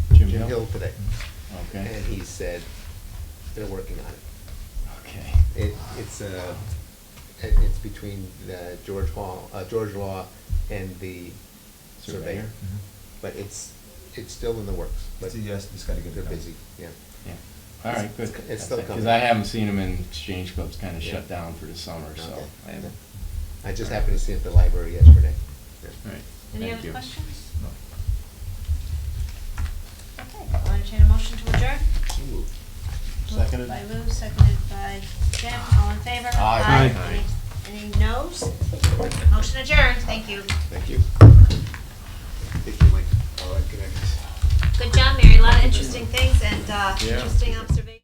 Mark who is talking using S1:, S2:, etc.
S1: Hill?
S2: Hill today.
S1: Okay,
S2: And he said, they're working on it.
S1: okay.
S2: It, it's uh it- it's between the George Hall, uh, George Law and the surveyor.
S1: Surveyor?
S2: But it's, it's still in the works, but
S3: It's a yes, just gotta get it
S2: they're
S3: done.
S2: busy, yeah.
S1: Yeah, all right, good.
S2: It's- it's still
S1: Because
S2: coming.
S1: I haven't seen them in Exchange Club's kind of
S2: Yeah.
S1: shut down for the summer, so.
S2: Okay.
S1: I haven't.
S2: I just happened to see it at the library yesterday. Yeah.
S1: All right,
S4: Any
S1: thank
S4: other
S1: you.
S4: questions?
S3: No.
S4: Okay, I'll entertain a motion to adjourn.
S1: Seconded.
S4: Moved by Lou, seconded by Jim, all in favor?
S1: Aye.
S4: Any any noes? Motion adjourned, thank you.
S2: Thank you. Thank you, Mike. All right, good night.
S4: Good job, Mary, a lot of interesting things and, uh,
S1: Yeah.
S4: interesting observations.